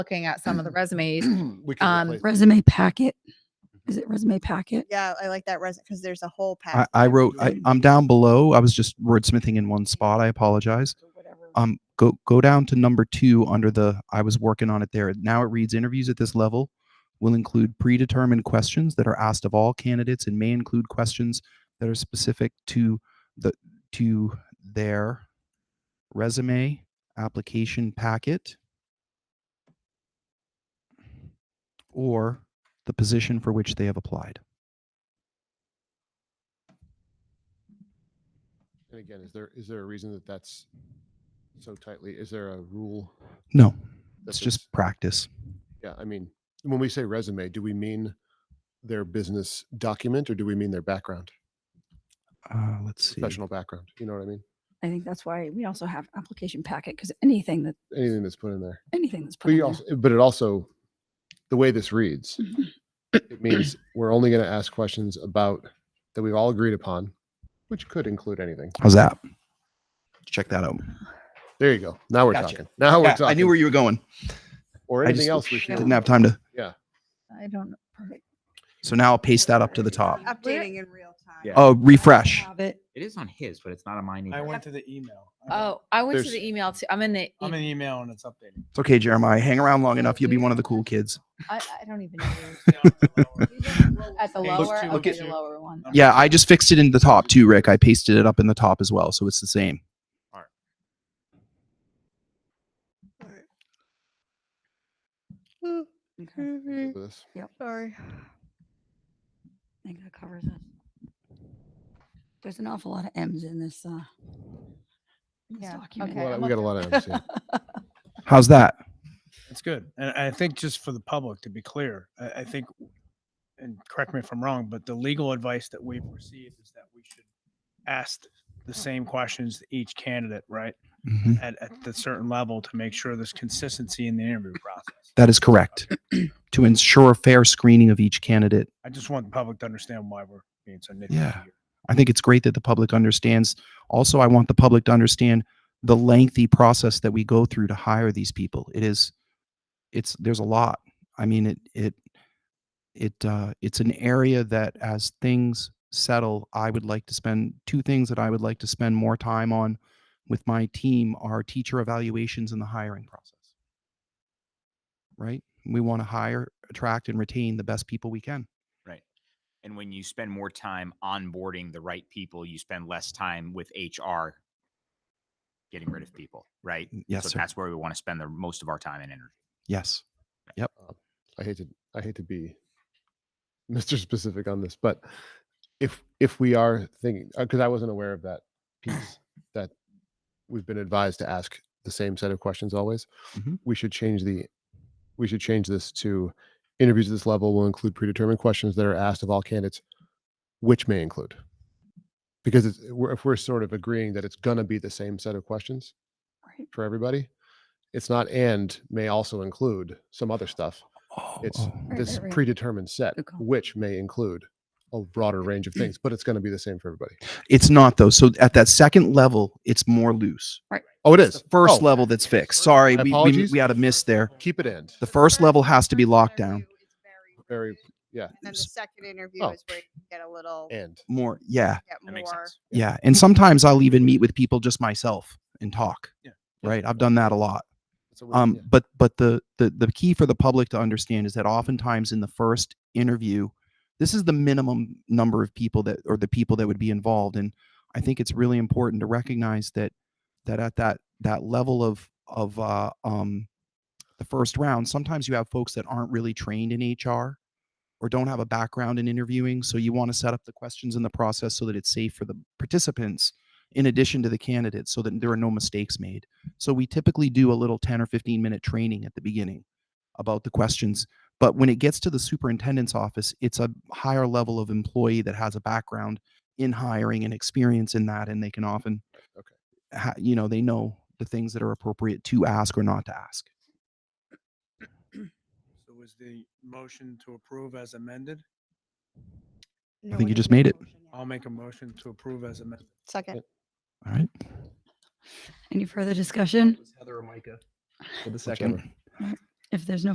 looking at some of the resumes. we can Um, replace- Resume packet. Is it resume packet? Yeah, I like that resume because there's a whole I, pack. I wrote, I, Mhm. I'm down below. I was just wordsmithing in one spot. I apologize. Um, go, go down to number two under the, I was working on it there. Now it reads interviews at this level will include predetermined questions that are asked of all candidates and may include questions that are specific to the, to their resume application packet or the position for which they have applied. And again, is there, is there a reason that that's so tightly, is there a rule? No, that it's it's- just practice. Yeah, I mean, when we say resume, do we mean their business document or do we mean their background, Uh, let's see. professional background? You know what I mean? I think that's why we also have application packet because anything that, Anything that's put in there. anything that's put But in you there. also, but it also, the way this reads, it means we're only going to ask questions about that we've all agreed upon, which could include anything. How's that? Check that out. There you go. Now we're Gotcha. talking. Now we're Yeah, talking. I knew where you were going. or I anything just else we should. Didn't have time to. I don't know. Perfect. So now I'll paste that up to the top. Updating in real time. Yeah. Oh, refresh. Have it. It is on his, but it's not on mine. I either. went to the email. I went- Oh, I went to There's- the email too. I'm in the. I'm e- an email and it's updating. It's okay, Jeremiah. Hang around long enough. You'll be one of the cool kids. e, I, I don't even know. where it's- At the Page lower, two, I'll look do at the two. lower one. Number Yeah, two. I just fixed it in the top too, Rick. I pasted it up in the top as well. So it's the same. Ooh, Okay. mhm, with this. Sorry. I think that covers it. There's an awful lot of M's in this, uh, in this Yeah, document. okay. Well, I'm we up got a lot of M's, yeah. How's that? It's good. And I think just for the public, to be clear, I, I think, and correct me if I'm wrong, but the legal advice that we've received is that we should ask the same questions to each candidate, right? Mhm. At, at the certain level to make sure there's consistency in the interview process. That is correct. to ensure fair screening of each candidate, I just want the public to understand why we're being so nitpicky. Yeah. here. I think it's great that the public understands. Also, I want the public to understand the lengthy process that we go through to hire these people. It is, it's there's a lot. I mean, it it it uh, it's an area that as things settle, I would like to spend two things that I would like to spend more time on with my team are teacher evaluations and the hiring process. Right? We want to hire, attract, and retain the best people we can. Right. And when you spend more time onboarding the right people, you spend less time with HR getting rid of people, right? Yes, so sir. that's where we want to spend the most of our time and energy. Yes. I hate to I hate to be Mr. Specific on this, but if if we are thinking because I wasn't aware of that piece that we've been advised to ask the same set of questions always, Mhm. we should change the we should change this to interviews at this level will include predetermined questions that are asked of all candidates, which may include because it's, we're, if we're sort of agreeing that it's gonna be the same set of questions Right. for everybody, it's not and may also include some other stuff Oh, it's Right, this right, right. predetermined set, Good call. which may include a broader range of things, but it's going to be the same for everybody. It's not though. So at that second level, it's more loose. Oh, it It's is the first Oh, level that's fixed. Sorry, My we, we, apologies. we had a miss there. Keep it in. The first level has to be locked down. interview is very Very rude, yeah, And then the second interview Oh. is where you can get a little, and More, yeah, get That makes more. sense. yeah. And sometimes I'll even meet with people just myself and talk. Yeah. Right, I've done that a lot. it's a win, Um, yeah. but but the, the the key for the public to understand is that oftentimes in the first interview, this is the minimum number of people that or the people that would be involved, and I think it's really important to recognize that that at that that level of of uh, um, the first round, sometimes you have folks that aren't really trained in HR or don't have a background in interviewing, so you want to set up the questions and the process so that it's safe for the participants in addition to the candidates, so that there are no mistakes made. So we typically do a little 10 or 15 minute training at the beginning about the questions. But when it gets to the superintendent's office, it's a higher level of employee that has a background in hiring and experience in that. And they can often, Okay. ha- you know, they know the things that are appropriate to ask or not to ask. So was the motion to approve as amended? No think one you has just made a made it. motion yet. I'll make a motion to approve as amended. Second. All right. Any further discussion? Heather or Micah for the second. second. if there's no